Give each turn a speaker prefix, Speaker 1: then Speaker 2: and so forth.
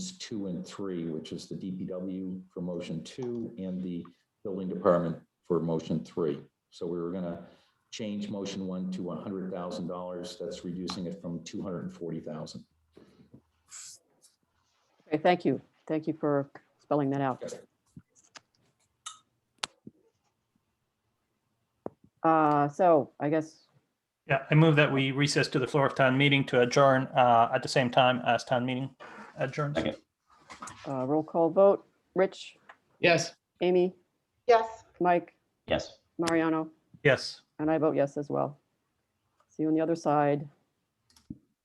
Speaker 1: two and three, which is the DPW for motion two and the building department for motion three. So we were gonna change motion one to one hundred thousand dollars. That's reducing it from two hundred and forty thousand.
Speaker 2: Okay, thank you. Thank you for spelling that out.
Speaker 1: Yes.
Speaker 2: Uh, So I guess,
Speaker 3: Yeah, I move that we recess to the floor of town meeting to adjourn uh, at the same time as town meeting adjourns.
Speaker 4: Second.
Speaker 2: uh, roll call vote. Rich,
Speaker 4: Yes.
Speaker 2: Amy,
Speaker 5: Yes,
Speaker 2: Mike,
Speaker 4: Yes.
Speaker 2: Mariano,
Speaker 3: Yes.
Speaker 2: and I vote yes as well. See you on the other side.